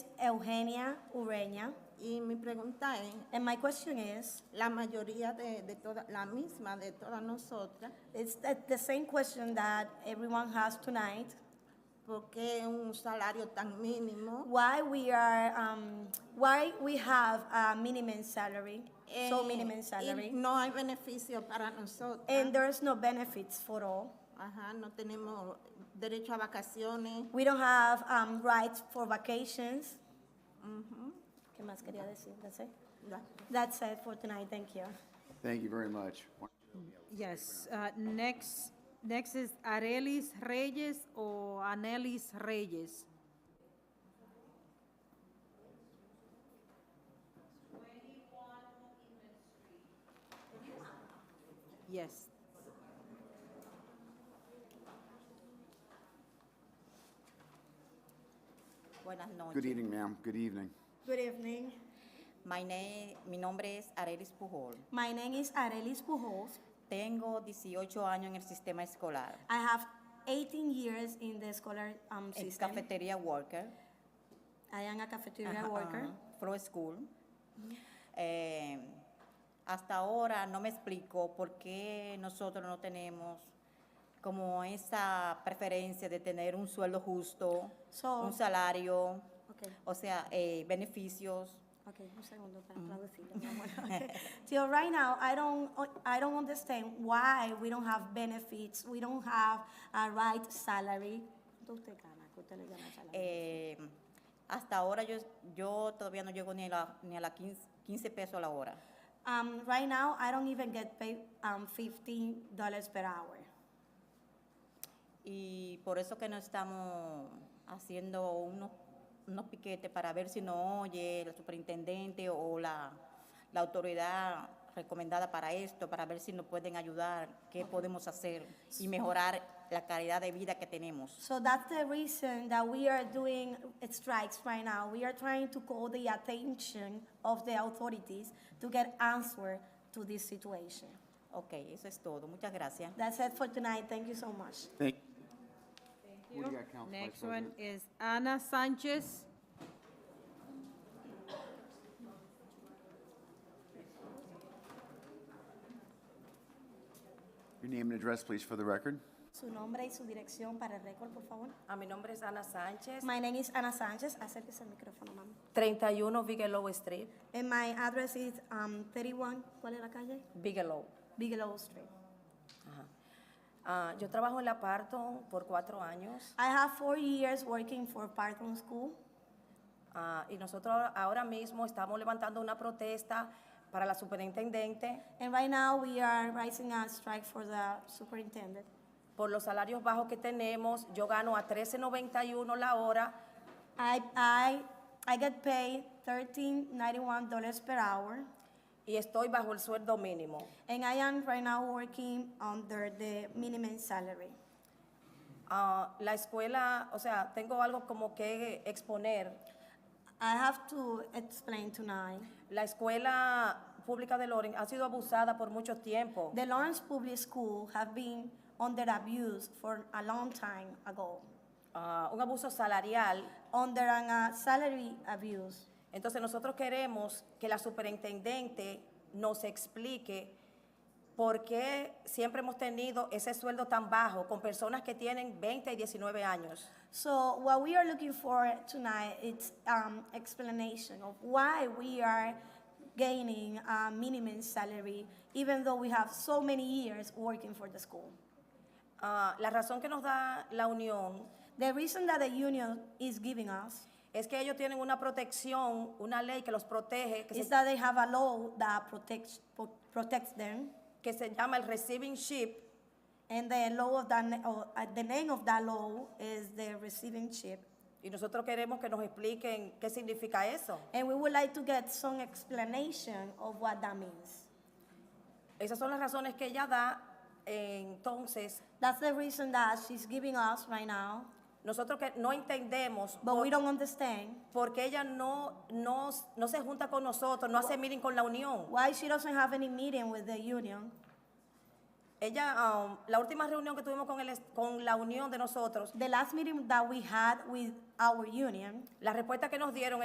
Eugenia Ureña. Y mi pregunta es, And my question is, la mayoría de, de todas, la misma de todas nosotras, it's that the same question that everyone has tonight. ¿por qué un salario tan mínimo? Why we are, um, why we have a minimum salary, so Eh, minimum Y salary, no hay beneficio para nosotros. and there's no benefits for all. Ajá, no tenemos derecho a vacaciones. We don't have um, rights for vacations. ¿Qué más quería decir? That's it. Ya. That's it for tonight. Thank you. Thank you very much. Yes, uh, next, next is Arelis Reyes or Anelis Reyes. Yes. Buenas Good noches. evening, ma'am. Good evening. Good evening. My name- mi nombre es Arelis Pujol. My name is Arelis Pujols. Tengo 18 años en el sistema escolar. I have 18 years in the scholar um, En system. cafetería worker. I am a cafeteria Ajá, worker. ajá, Flow School. Eh, hasta ahora no me explico por qué nosotros no tenemos como esa preferencia de tener un sueldo justo, So- un salario, Okay. o sea, eh, beneficios. Okay, un segundo para traducirlo, mi amor. Okay. Till right now, I don't, oh, I don't understand why we don't have benefits, we don't have a right salary. ¿Cuánto usted gana? ¿Qué usted le llama salario? Eh, hasta ahora yo, yo todavía no llego ni a la, ni a la 15, 15 pesos a la hora. Um, right now, I don't even get paid um, fifteen dollars per hour. Y por eso que no estamos haciendo unos, unos piquetes para ver si no oye el superintendente o la, la autoridad recomendada para esto, para ver si nos pueden ayudar, qué podemos hacer y mejorar la calidad de vida que tenemos. So that's the reason that we are doing strikes right now. We are trying to call the attention of the authorities to get answer to this situation. Ok, eso es todo. Muchas gracias. That's it for tonight. Thank you so much. Thank. you. What do you got, Council Vice Next one President? is Ana Sanchez. Your name and address, please, for the record. Su nombre y su dirección para el récord, por favor. A Ah, mi nombre es Ana Sánchez, My name is Ana Sanchez. Acérquese al micrófono, mami. 31 Bigelow Street, And my address is um, 31, ¿cuál es la calle? Bigelow. Bigelow Street. Ah, yo trabajo en la Parton por cuatro años I have four years working for Parton School. ah, y nosotros ahora- ahora mismo estamos levantando una protesta para la superintendente And right now, we are rising a strike for the superintendent. por los salarios bajos que tenemos. Yo gano a 13.91 la hora I, I, I get paid $13.91 per hour, y estoy bajo el sueldo mínimo. and I am right now working under the minimum salary. Ah, la escuela, o sea, tengo algo como que exponer. I have to explain tonight. La escuela pública de Loren ha sido abusada por mucho tiempo. The Lawrence Public School have been under abuse for a long time ago, Ah, un abuso salarial. under an, uh, salary abuse. Entonces nosotros queremos que la superintendente nos explique por qué siempre hemos tenido ese sueldo tan bajo con personas que tienen 20 y 19 años. So what we are looking for tonight is um, explanation of why we are gaining a minimum salary, even though we have so many years working for the school. Ah, la razón que nos da la unión The reason that the union is giving us es que ellos tienen una protección, una ley que los protege, que, is se, that they have a law that protects pro- protects them, que se llama el Receiving Ship, and the law of that na- or, uh, the name of that law is the receiving ship. y nosotros queremos que nos expliquen qué significa eso. And we would like to get some explanation of what that means. Esas son las razones que ella da. Entonces, That's the reason that she's giving us right now, nosotros que no entendemos but por- we don't understand porque ella no, no, no se junta con nosotros, no hace meeting con la unión. why she doesn't have any meeting with the union. Ella, um, la última reunión que tuvimos con, el, est- con la unión de nosotros, The last meeting that we had with our union, la respuesta que nos dieron